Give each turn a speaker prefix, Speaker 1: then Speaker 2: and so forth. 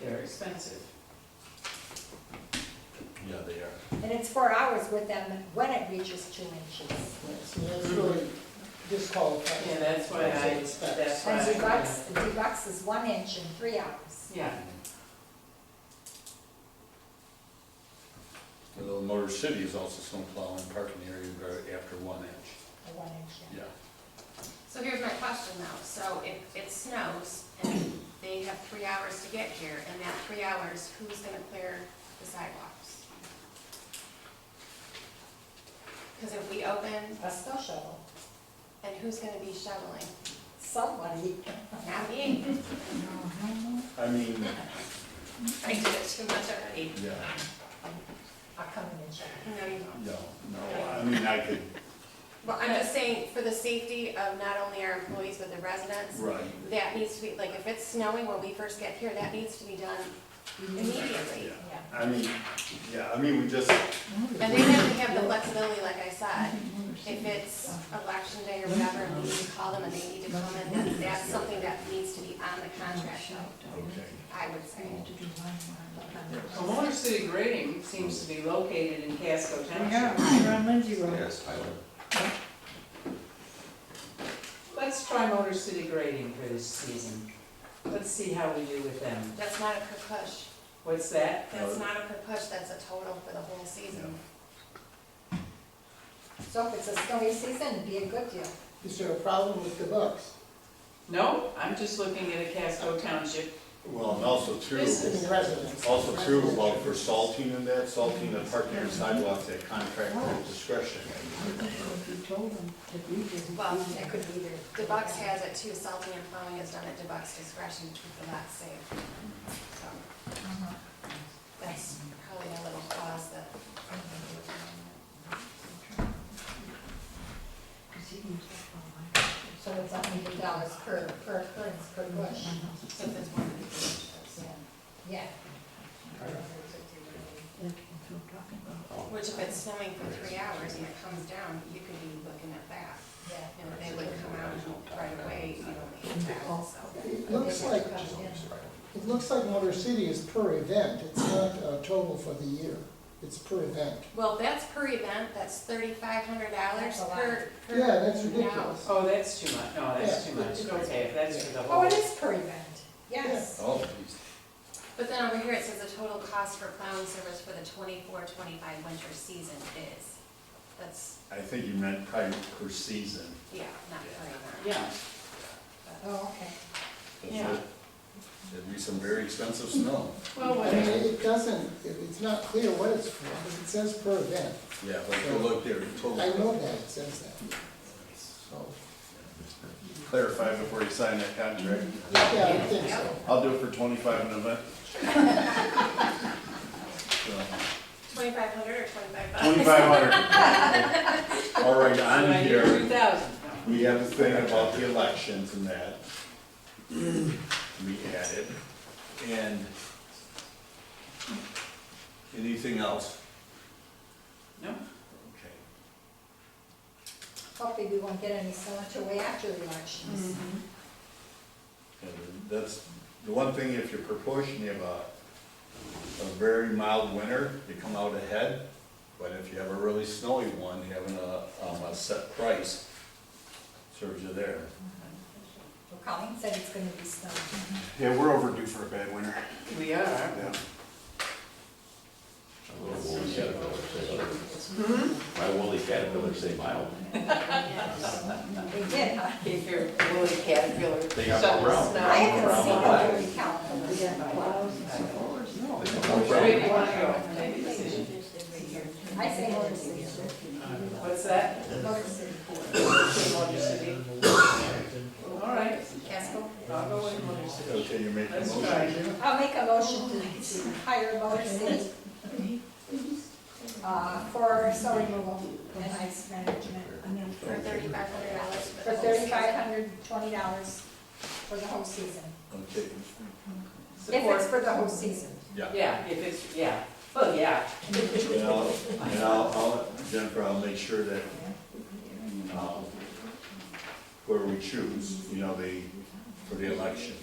Speaker 1: They're expensive.
Speaker 2: Yeah, they are.
Speaker 3: And it's four hours with them when it reaches two inches.
Speaker 4: So that's really disqualified.
Speaker 1: Yeah, that's why I, that's why.
Speaker 3: And
Speaker 1: I-
Speaker 3: deluxe, deluxe is one inch in three hours.
Speaker 1: Yeah,
Speaker 2: Although Motor City is also some plowing parking area very- after one inch,
Speaker 3: A one inch,
Speaker 2: yeah.
Speaker 5: So here's my question though, so if it snows and they have three hours to get here, and that three hours, who's gonna clear the sidewalks? Because if we open,
Speaker 3: yeah. A snow shovel,
Speaker 5: then who's gonna be shoveling?
Speaker 3: somebody.
Speaker 5: Not me,
Speaker 2: I mean,
Speaker 5: I did it too much already.
Speaker 2: yeah,
Speaker 3: I'll come in and shovel.
Speaker 5: No, you don't.
Speaker 2: no, no, I mean, I could,
Speaker 5: Well, I'm just saying, for the safety of not only our employees, but the residents,
Speaker 2: right,
Speaker 5: that needs to be, like, if it's snowing when we first get here, that needs to be done immediately.
Speaker 2: yeah. I mean, yeah, I mean, we just,
Speaker 5: And they have to have the flexibility, like I said, if it's election day or whatever, and we need to call them and they need to come in, then that's something that needs to be on the contract, though,
Speaker 2: okay,
Speaker 5: I would say.
Speaker 1: well, Motor City Grading seems to be located in Casco Township.
Speaker 4: Yeah, we're on Lindsay Road.
Speaker 6: Yes, I would.
Speaker 1: Let's try Motor City Grading for this season. Let's see how we do with them.
Speaker 5: That's not a per push,
Speaker 1: What's that?
Speaker 5: that's not a per push, that's a total for the whole season.
Speaker 3: So if it's a snowy season, it'd be a good deal.
Speaker 4: Is there a problem with the bucks?
Speaker 1: No, I'm just looking at a Casco Township.
Speaker 2: well, and also too,
Speaker 1: This is-
Speaker 4: In residence?
Speaker 2: also too, well, for salting and that, salting the parking area sidewalks at contractor discretion.
Speaker 5: Well,
Speaker 3: It could be there.
Speaker 5: DeBucks has it too, salting and plowing is done at DeBucks discretion to keep the lot safe. So That's probably a little clause that.
Speaker 3: So it's a hundred dollars per, per occurrence, per bush.
Speaker 5: So if it's one of these,
Speaker 3: Yeah.
Speaker 6: Oh,
Speaker 5: Which if it's snowing for three hours and it comes down, you could be looking at that.
Speaker 3: Yeah.
Speaker 5: You know, they would come out right away, you don't need that, so.
Speaker 4: It looks like, it looks like Motor City is per event, it's not a total for the year, it's per event.
Speaker 5: Well, that's per event, that's thirty-five hundred dollars
Speaker 3: That's a lot.
Speaker 5: per. per
Speaker 4: Yeah, that's
Speaker 5: hour.
Speaker 4: ridiculous.
Speaker 1: Oh, that's too much. No, that's too much. Okay, if that's for the whole.
Speaker 3: Oh, it is per event, yes.
Speaker 2: Oh, geez.
Speaker 5: But then over here, it says the total cost for plowing service for the 24-25 winter season is, that's,
Speaker 2: I think you meant probably per season.
Speaker 5: yeah, not per event.
Speaker 1: Yeah,
Speaker 3: Oh, okay.
Speaker 1: Yeah.
Speaker 2: It'd be some very expensive snow.
Speaker 1: well,
Speaker 4: I mean,
Speaker 1: whatever.
Speaker 4: it doesn't, it- it's not clear what it's for, but it says per event.
Speaker 2: Yeah, but if you look there, it
Speaker 4: I
Speaker 2: totally
Speaker 4: know that it says that, so,
Speaker 2: clarify before you sign that contract.
Speaker 4: yeah, I think so.
Speaker 2: I'll do it for twenty-five an event. So,
Speaker 5: 2,500 or 25
Speaker 2: Twenty-five hundred. All right,
Speaker 1: So I
Speaker 2: on
Speaker 1: hear
Speaker 2: here,
Speaker 1: 2,000.
Speaker 2: we have the thing about the elections and that. We added, and anything else?
Speaker 1: No,
Speaker 2: Okay.
Speaker 3: Hopefully we won't get any snow until way after the elections.
Speaker 2: And That's the one thing, if you're proportionate, you have a, a very mild winter, you come out ahead. But if you have a really snowy one, having a, um, a set price serves you there.
Speaker 3: Well, Colleen said it's gonna be snow.
Speaker 7: Yeah, we're overdue for a bad winter.
Speaker 1: we are.
Speaker 7: Yeah.
Speaker 6: My woolly caterpillars say mild. My woolly caterpillars say mild.
Speaker 3: They did, huh?
Speaker 1: If you're a little caterpillar.
Speaker 6: They got
Speaker 1: shovel
Speaker 6: brown.
Speaker 1: snow.
Speaker 3: I haven't
Speaker 6: Around
Speaker 3: seen
Speaker 6: the
Speaker 3: a
Speaker 6: back.
Speaker 3: very calendar.
Speaker 6: No, they
Speaker 1: Where do
Speaker 6: don't.
Speaker 1: you want to go? Make a decision.
Speaker 3: I say Motor City.
Speaker 1: What's that?
Speaker 3: Motor City.
Speaker 1: Motor City? All right,
Speaker 3: Casco?
Speaker 1: I'll go with Motor City.
Speaker 2: Okay, you make a
Speaker 1: Let's
Speaker 2: motion.
Speaker 1: try.
Speaker 3: I'll make a motion to hire Motor City uh, for snow removal and ice management
Speaker 5: for $3,500.
Speaker 3: for thirty-five hundred twenty dollars for the whole season.
Speaker 2: Okay,
Speaker 3: If it's
Speaker 1: Support.
Speaker 3: for the whole season.
Speaker 2: yeah.
Speaker 1: Yeah, if it's, yeah, well, yeah.
Speaker 2: And I'll, and I'll, I'll- Jennifer, I'll make sure that, um, where we choose, you know, the, for the election,